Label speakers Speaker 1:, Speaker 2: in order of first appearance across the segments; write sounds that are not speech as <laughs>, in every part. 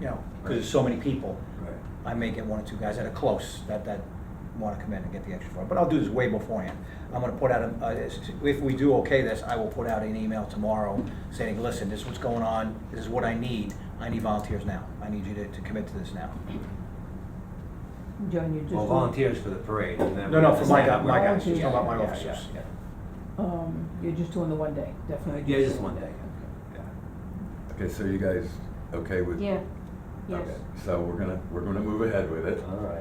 Speaker 1: you know, because there's so many people.
Speaker 2: Right.
Speaker 1: I may get one or two guys that are close, that, that wanna come in and get the extra four, but I'll do this way beforehand. I'm gonna put out, a- uh, s- s- if we do okay this, I will put out an email tomorrow saying, listen, this is what's going on, this is what I need, I need volunteers now, I need you to, to commit to this now.
Speaker 3: John, you just.
Speaker 2: Well, volunteers for the parade, and then.
Speaker 1: No, no, for my,
Speaker 2: Yeah,
Speaker 1: guy- my
Speaker 3: guy.
Speaker 1: guys, just talking about my
Speaker 2: yeah, yeah,
Speaker 1: officers.
Speaker 2: yeah.
Speaker 3: Um, you're just doing the one day, definitely.
Speaker 2: Yeah, just one day.
Speaker 4: Okay, so you guys okay with?
Speaker 5: Yeah, yes. Uh-huh.
Speaker 4: Okay, So we're gonna, we're gonna move ahead with it.
Speaker 2: All right.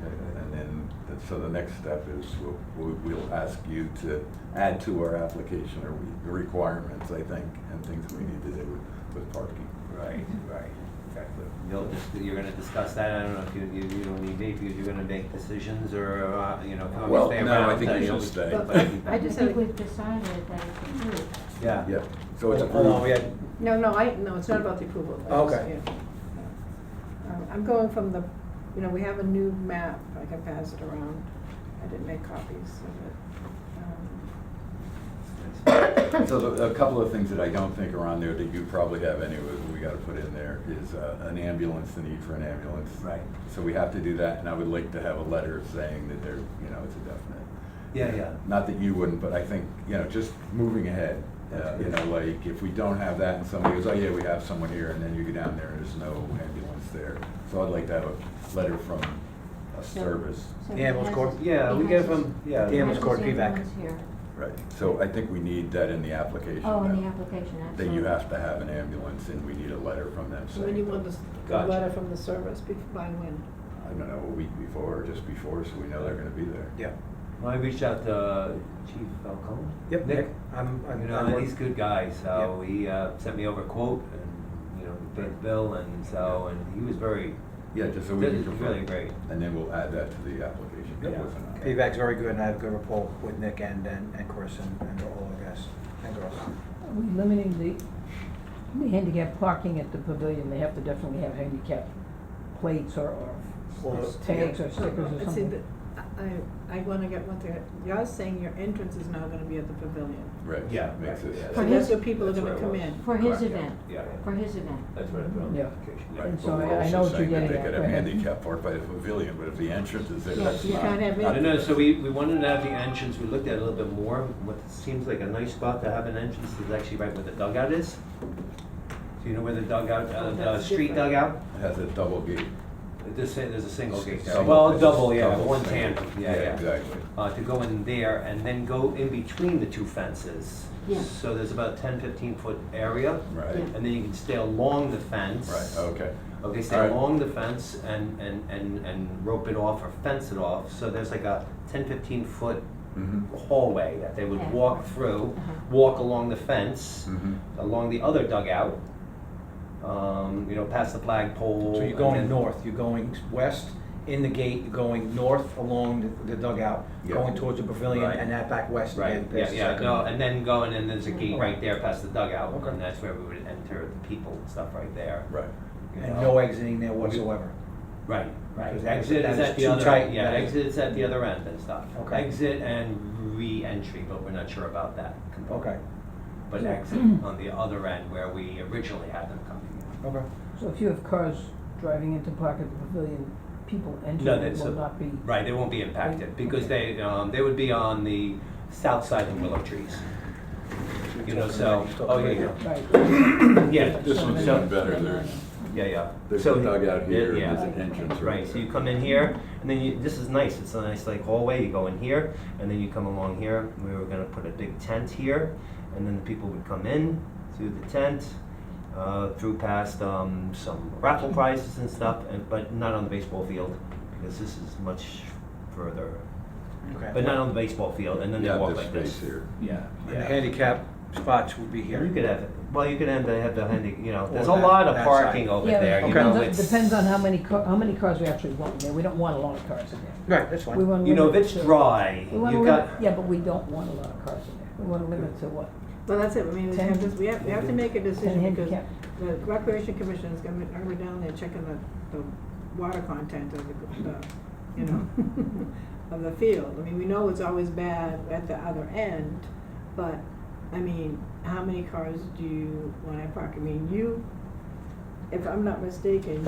Speaker 4: Okay, And then, th- so the next step is we'll, we'll- we'll ask you to add to our application or we- requirements, I think, and things we need to do with- with parking.
Speaker 2: Right, right, exactly. You'll just, you're gonna discuss that, I don't know if you, you, you don't need me, because you're gonna make decisions, or, uh, you know, if you want me to
Speaker 4: Well,
Speaker 2: stay
Speaker 4: no,
Speaker 2: around.
Speaker 4: I think
Speaker 2: then
Speaker 4: you
Speaker 2: you'll-
Speaker 4: should stay.
Speaker 5: But
Speaker 2: <laughs>
Speaker 5: I
Speaker 2: I
Speaker 5: just think we've decided that it's approved.
Speaker 2: Yeah.
Speaker 4: Yeah, so it's
Speaker 1: Oh, no, we
Speaker 4: approved.
Speaker 1: had-
Speaker 6: No, no, I, no, it's not about the approval. I
Speaker 1: Oh,
Speaker 6: just-
Speaker 1: okay.
Speaker 6: yeah. Um, I'm going from the, you know, we have a new map, I can pass it around. I didn't make copies of it. Um,
Speaker 4: So the- a couple of things that I don't think are on there that you probably have anyway, that we gotta put in there is uh, an ambulance, the need for an ambulance.
Speaker 2: Right.
Speaker 4: So we have to do that, and I would like to have a letter saying that there, you know, it's a definite.
Speaker 2: Yeah, yeah.
Speaker 4: Not that you wouldn't, but I think, you know, just moving ahead, uh, you know, like, if we don't have that and somebody goes, oh yeah, we have someone here, and then you go down there and there's no ambulance there. So I'd like to have a letter from a service.
Speaker 5: So
Speaker 1: The
Speaker 5: he
Speaker 1: ambulance
Speaker 5: has
Speaker 1: corps?
Speaker 5: his-
Speaker 2: Yeah,
Speaker 5: he
Speaker 2: we
Speaker 5: has
Speaker 2: get
Speaker 5: his-
Speaker 2: from- yeah.
Speaker 5: he
Speaker 1: The
Speaker 5: has
Speaker 1: ambulance
Speaker 5: his
Speaker 1: corps feedback.
Speaker 5: ambulance here.
Speaker 4: Right. So I think we need that in the application.
Speaker 5: Oh, in the
Speaker 4: now,
Speaker 5: application, absolutely.
Speaker 4: That you have to have an ambulance and we need a letter from them
Speaker 6: So when you
Speaker 4: saying.
Speaker 6: want this, the
Speaker 2: Gotcha.
Speaker 6: letter from the service, be- by when?
Speaker 4: I don't know, a week before or just before, so we know they're gonna be there.
Speaker 1: yeah,
Speaker 2: Well, I reached out to uh, Chief Falcone.
Speaker 1: yep, Nick, I'm,
Speaker 2: You
Speaker 1: I'm,
Speaker 2: know,
Speaker 1: I'm
Speaker 2: and
Speaker 1: work-
Speaker 2: he's a good guy, so he uh, sent me over a quote and, you know, we paid the bill and so, and he was very,
Speaker 4: Yeah, just so we
Speaker 2: That
Speaker 4: can
Speaker 2: is
Speaker 4: confirm.
Speaker 2: really great.
Speaker 4: And then we'll add that to the application. That
Speaker 2: Yeah.
Speaker 4: wasn't on there.
Speaker 1: feedback's very good, and I have a good rapport with Nick and, and, and Chris and, and all the guys and girls.
Speaker 3: Are we limiting the, the handicap parking at the pavilion? They have to definitely have handicap plates or,
Speaker 1: Or-
Speaker 3: or tags or stickers or
Speaker 6: I Oh, see that,
Speaker 3: something.
Speaker 6: I, I wanna get what they're, you're saying your entrance is now gonna be at the pavilion.
Speaker 4: Right.
Speaker 2: Yeah,
Speaker 4: Makes
Speaker 2: right,
Speaker 4: it-
Speaker 2: yeah.
Speaker 6: So
Speaker 5: For
Speaker 6: that's
Speaker 5: his-
Speaker 6: where people are
Speaker 2: That's
Speaker 6: gonna
Speaker 2: where
Speaker 6: come
Speaker 2: it
Speaker 6: in.
Speaker 5: For his
Speaker 4: Correct, yeah.
Speaker 5: event,
Speaker 2: yeah, yeah.
Speaker 5: for his event.
Speaker 2: that's what I put on the
Speaker 3: Yeah.
Speaker 2: application.
Speaker 4: Right,
Speaker 3: And
Speaker 4: but
Speaker 3: so
Speaker 4: we're
Speaker 3: I- I
Speaker 4: also
Speaker 3: know what you're
Speaker 4: saying that
Speaker 3: getting
Speaker 4: They
Speaker 3: at,
Speaker 4: could have
Speaker 3: right?
Speaker 4: handicap park by the pavilion, but if the entrance is there,
Speaker 6: Yeah,
Speaker 4: that's
Speaker 6: you
Speaker 4: not.
Speaker 6: can't have
Speaker 4: not-
Speaker 2: No, no, so we, we wanted to have the entrance, we looked at it a little bit more, what seems like a nice spot to have an entrance is actually right where the dugout is. So you know where the dugout, uh, the
Speaker 6: Oh, That's
Speaker 2: street
Speaker 6: different.
Speaker 2: dugout?
Speaker 4: It Has a double gate.
Speaker 2: This, there's a single gate there.
Speaker 4: Double-
Speaker 2: Well,
Speaker 4: it's
Speaker 2: double, yeah,
Speaker 4: double
Speaker 2: one
Speaker 4: single.
Speaker 2: tandem, yeah, yeah.
Speaker 4: Exactly.
Speaker 2: uh, to go in there and then go in between the two fences.
Speaker 5: Yeah.
Speaker 2: So there's about 10, 15 foot area.
Speaker 4: Right,
Speaker 5: Yeah.
Speaker 2: And then you can stay along the fence.
Speaker 4: right, okay.
Speaker 2: Okay, stay
Speaker 4: Alright.
Speaker 2: along the fence and, and, and, and rope it off or fence it off. So there's like a 10, 15 foot
Speaker 4: Mhm.
Speaker 2: hallway that they would
Speaker 5: Yeah.
Speaker 2: walk through,
Speaker 5: Uh-huh.
Speaker 2: walk along the fence,
Speaker 4: Mhm.
Speaker 2: along the other dugout, um, you know, past the flagpole.
Speaker 1: So you're
Speaker 2: and
Speaker 1: going
Speaker 2: then-
Speaker 1: north, you're going west in the gate, you're going north along the dugout,
Speaker 4: Yeah.
Speaker 1: going towards the pavilion
Speaker 2: Right.
Speaker 1: and that back west
Speaker 2: Right,
Speaker 1: again.
Speaker 2: yeah,
Speaker 1: past the
Speaker 2: yeah,
Speaker 1: second
Speaker 2: no,
Speaker 1: one.
Speaker 2: and then going, and there's a gate right there past the dugout,
Speaker 1: Okay.
Speaker 2: and that's where we would enter the people and stuff right there.
Speaker 4: Right.
Speaker 2: you
Speaker 1: And
Speaker 2: know.
Speaker 1: no exiting there whatsoever.
Speaker 2: Right, right,
Speaker 1: Because
Speaker 2: exit
Speaker 1: that
Speaker 2: is
Speaker 1: is
Speaker 2: at
Speaker 1: too
Speaker 2: the other,
Speaker 1: tight,
Speaker 2: yeah,
Speaker 1: that is-
Speaker 2: exit is at the other end and stuff.
Speaker 1: Okay.
Speaker 2: Exit and re-entry, but we're not sure about that component.
Speaker 1: Okay, <clears throat>
Speaker 2: But exit on the other end where we originally had them coming
Speaker 1: okay.
Speaker 3: So if you have cars driving into park at the pavilion, people
Speaker 2: in.
Speaker 3: entering
Speaker 2: No,
Speaker 3: it
Speaker 2: that's,
Speaker 3: will
Speaker 2: a-
Speaker 3: not be.
Speaker 2: right, they won't be impacted, because they, um, they would be on the south side of
Speaker 1: <clears throat>
Speaker 2: Willow Trees. You know, so, oh, yeah, yeah.
Speaker 3: Right.
Speaker 2: yeah,
Speaker 4: This one's even better, there's,
Speaker 2: yeah, yeah.
Speaker 4: there's
Speaker 2: So-
Speaker 4: a dugout here, and
Speaker 2: Yeah.
Speaker 4: there's an entrance right
Speaker 2: Right, so you come in here, and then you, this is nice, it's a nice like hallway, you go in here, and then you come along here, we were gonna put a big tent here, and then the people would come in through the tent, uh, through past, um, some raffle prizes and stuff, and, but not on the baseball field, because this is much further,
Speaker 1: Okay.
Speaker 2: but not on the baseball field, and then they
Speaker 4: Yeah,
Speaker 2: walk
Speaker 4: this
Speaker 2: like this.
Speaker 4: space here.
Speaker 2: Yeah,
Speaker 1: And the
Speaker 2: yeah.
Speaker 1: handicap spots would be here.
Speaker 2: You could have, well, you could end, up have the handy, you know, there's a
Speaker 1: Or that-
Speaker 2: lot of
Speaker 1: that
Speaker 2: parking
Speaker 1: side.
Speaker 2: over
Speaker 3: Yeah,
Speaker 2: there,
Speaker 3: but
Speaker 2: you
Speaker 1: Okay.
Speaker 2: know,
Speaker 3: depends on-
Speaker 2: it's.
Speaker 3: Depends on how many car, how many cars we actually want in there. We don't want a lot of cars in there.
Speaker 1: Right, that's
Speaker 3: We
Speaker 1: fine.
Speaker 3: want.
Speaker 2: You know, if
Speaker 3: limit
Speaker 2: it's
Speaker 3: to-
Speaker 2: dry,
Speaker 3: We wanna
Speaker 2: you
Speaker 3: limit-
Speaker 2: got,
Speaker 3: Yeah, but we don't want a lot of cars in there. We want to limit to what?
Speaker 6: Well, that's it, I mean, we have to, we have, we have to make a decision because
Speaker 3: handicap.
Speaker 6: the recreation commission is gonna, are we down there checking the, the water content of the, the, you know, of the field? I mean, we know it's always bad at the other end, but, I mean, how many cars do you wanna park? I mean, you, if I'm not mistaken,